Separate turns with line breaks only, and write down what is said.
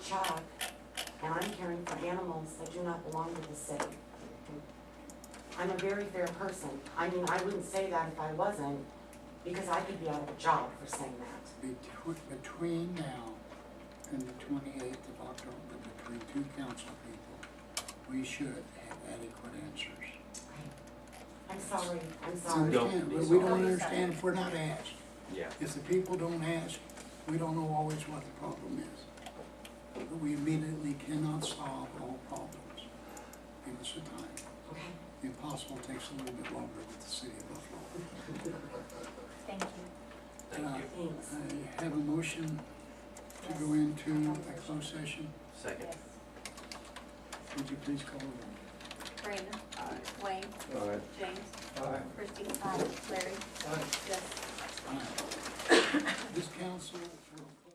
child, and I'm caring for animals that do not belong to the city. I'm a very fair person. I mean, I wouldn't say that if I wasn't, because I could be out of a job for saying that.
Betw- Between now and the 28th of October, between two council people, we should have adequate answers.
I'm sorry, I'm
It's
sorry.
No.
understand-
Don't be
We
sorry.
don't understand if we're not asked.
Yeah.
If the people don't ask, we don't know always what the problem is. But We immediately cannot solve all problems. Give us the time.
Okay,
The impossible takes a little bit longer with the city of Buffalo.
Thank you.
Thank you.
thanks.
I have a motion to go into a closed session.
Second.
Would you please call the roll?
Brandon. Wayne. James. Christie. Larry. Jess.
This council will